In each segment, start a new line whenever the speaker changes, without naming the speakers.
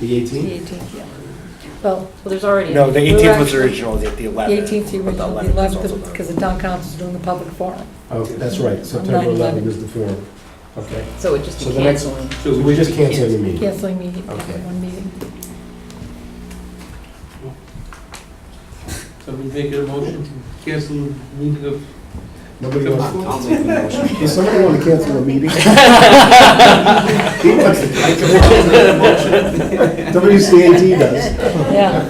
The
The
18th?
18th, yeah. Well, well, there's already.
No, the
we were
18th was
actually-
original, the the
The
11th.
18th, the
but
original, the
11th is
11th,
also-
because the town council's doing the public forum.
Oh, that's right, September
9/11.
11th is the forum. Okay.
So it just
So
be
the next-
canceling.
So we just canceled the meeting?
Canceling meeting,
Okay.
one meeting.
Somebody make a motion to cancel meeting of
Nobody wants,
make the motion.
does somebody want to cancel a meeting? WCAT does.
Yeah,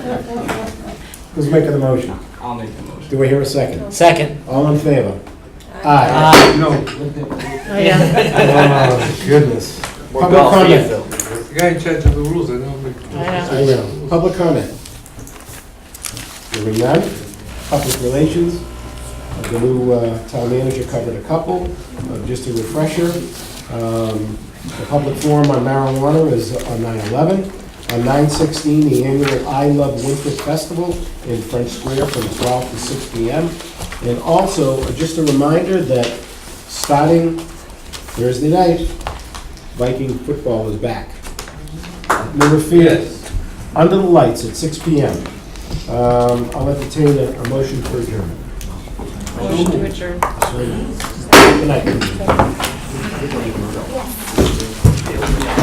Who's making the motion?
I'll make the motion.
Do we hear a second?
Second.
All in favor?
Aye.
No.
Oh, yeah,
Oh, Goodness.
We're
Public
golfing.
comment.
The guy in charge of the rules, I know.
I
I know. Public comment. Hearing none. Public relations. Uh, The new uh, town manager covered a couple. Uh, Just a refresher, um, the public forum on marijuana is on 9/11. On 9/16, the annual I Love Winter Festival in French Square from 12 to 6 p.m. And also, uh, just a reminder that starting Thursday night, Viking football is back. Number fear,
Yes.
under the lights at 6 p.m. Um, I'll entertain a a motion for adjournment.
motion to adjourn.
Good night.